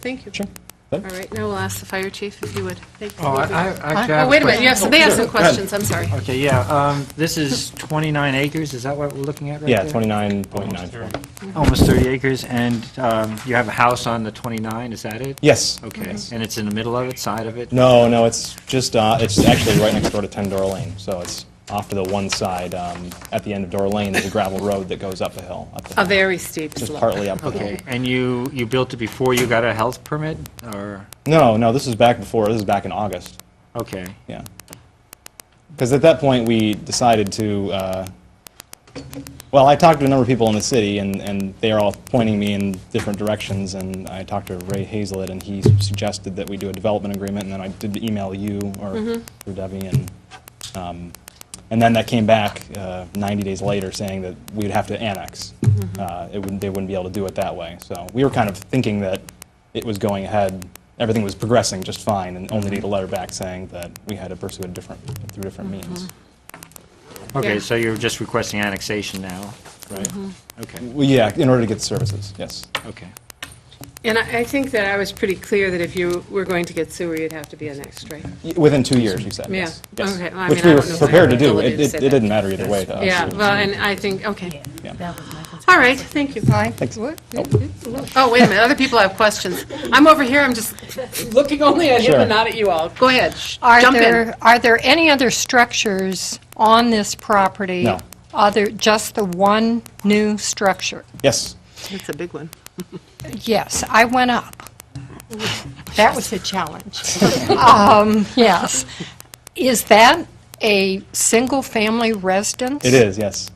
Thank you. Sure. All right, now we'll ask the fire chief if you would. Thank you. Oh, I, I actually have Oh, wait a minute, question. yes, they have some questions, I'm sorry. Okay, yeah, um, this is 29 acres, is that what we're looking at right Yeah, there? 29.94. Almost 30 acres, and, um, you have a house on the 29, is that it? Yes. Okay, and it's in the middle of it, side of it? No, no, it's just, uh, it's actually right next door to 10 Door Lane, so it's off to the one side, um, at the end of Door Lane, there's a gravel road that goes up the hill. up the A hill. very steep slope. Just partly up the hill. Okay, and you, you built it before you got a health permit, or, No, no, this is back before, this is back in August, okay, yeah. Because at that point, we decided to, uh, well, I talked to a number of people in the city, and, and they are all pointing me in different directions, and I talked to Ray Hazelit, and he suggested that we do a development agreement, and then I did email you or through Debbie, and, um, and then that came back uh, 90 days later saying that we'd have to annex. Mm-hmm. Uh, It wouldn't, they wouldn't be able to do it that way. So we were kind of thinking that it was going ahead, everything was progressing just fine, and only need a letter back saying that we had to pursue a different, through different Mm-hmm. means, okay, Yeah. so you're just requesting annexation now, right? Mm-hmm. okay, Well, yeah, in order to get services, yes. okay. And I I think that I was pretty clear that if you were going to get sewer, you'd have to be annexed, right? Y- Within two years, you said, Yeah. yes. Yes. Okay. Well, I Which mean, I we were don't know if I prepared to have the do. ability It to it- say it that. didn't matter either way to us. Yeah, It was- well, and I think, okay. yeah. All right, thank you. Aye. Thanks. Oh, wait a minute, other people have questions. I'm over here, I'm just looking only at him Sure. and not at you all. Go ahead, Shh, Are jump in. there, are there any other structures on this property? No. Other, just the one new structure? Yes. That's a big one. Yes, I went up. That was a challenge. Um, Yes. Is that a single-family residence? It is, yes.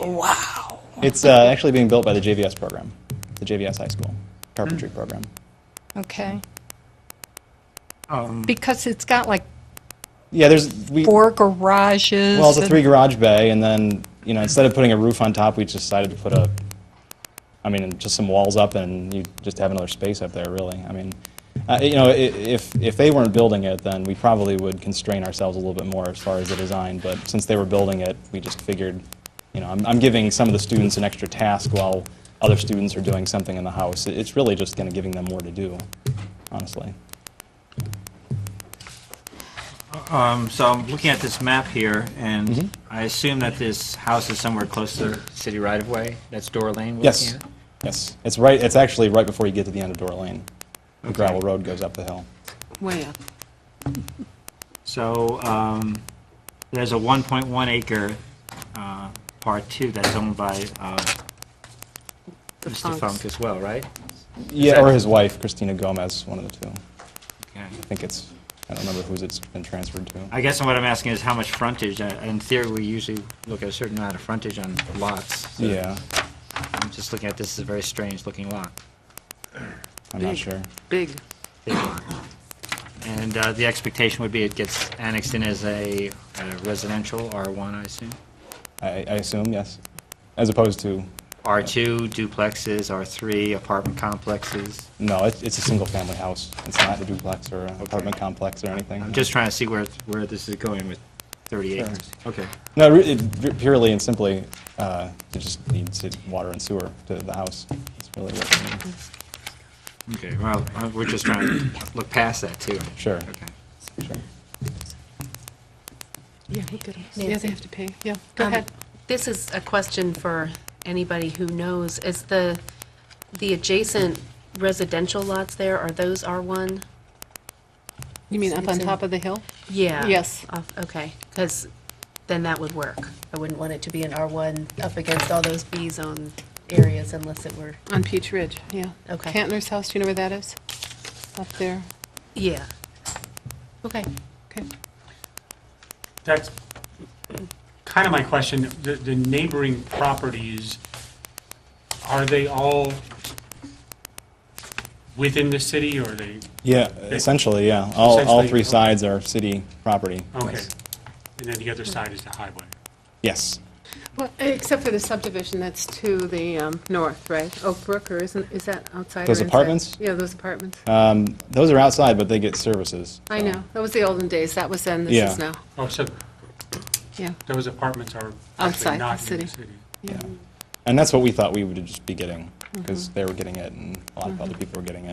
Wow. It's uh, actually being built by the JVS program, the JVS High School Carpentry program. Okay. Um, Because it's got like Yeah, there's, we, well, four garages. it's a and- three garage bay, and then, you know, instead of putting a roof on top, we just decided to put a, I mean, just some walls up, and you just have another space up there, really. I mean, uh, you know, i- if, if they weren't building it, then we probably would constrain ourselves a little bit more as far as the design, but since they were building it, we just figured, you know, I'm, I'm giving some of the students an extra task while other students are doing something in the house. It- It's really just kind of giving them more to do, honestly. Um, So I'm looking at this map here, and I assume that this house is somewhere close to the city right-of-way? That's Door Lane we're Yes, looking at? yes. It's right, it's actually right before you get to the end of Door Lane. The Okay. gravel road goes up the hill. Way up. So um, there's a 1.1 acre uh, Part 2 that's owned by uh, The Mr. Funks. Funk as well, right? Yeah, that- or his wife, Christina Gomez, one of the two. Okay. I think it's, I don't remember whose it's been transferred to. I guess what I'm asking is how much frontage? Uh, In theory, we usually look at a certain amount of frontage on lots. so Yeah, I'm just looking at, this is a very strange-looking lot. I'm not Big. sure. Big. big lot. And uh, the expectation would be it gets annexed in as a uh, residential, R1, I assume? I, I assume, yes. As opposed to, R2 duplexes, R3 apartment complexes. no, it's, it's a single-family house. It's not a duplex or an apartment complex or anything. I'm just trying to see where, where this is going with 30 Sure. acres. Okay. No, re- it- purely and simply, uh, it just needs it- water and sewer to the house. That's really what it means. Okay, well, uh, we're just trying to look past that, too. Sure. Okay. Sure. Yeah, he could, yeah, they have to pay, yeah, go Um, ahead. This is a question for anybody who knows. Is the, the adjacent residential lots there, are those R1? You mean up on top of the hill? Yeah. Yes. Off- Okay, because then that would work. I wouldn't want it to be an R1 up against all those B-zone areas unless it were, On Peach Ridge, yeah. Okay. Cantler's house, do you know where that is? Up there, yeah. Okay. okay. That's kind of my question. The the neighboring properties, are they all within the city or are they, Yeah, essentially, yeah. All, all Essentially, three okay. sides are city property. okay. Yes. And then the other side is the highway. Yes. Well, except for the subdivision that's to the um, north, right? Oak Brook, or isn't, is that outside or Those inside? apartments? Yeah, those apartments. Um, Those are outside, but they get services. I so. know, that was the olden days, that was then, this Yeah. is now. Oh, so Yeah, those apartments are Outside the actually not in city. the city. Yeah. And that's what we thought we would just be getting, because they were getting it, and a lot of other people were getting it.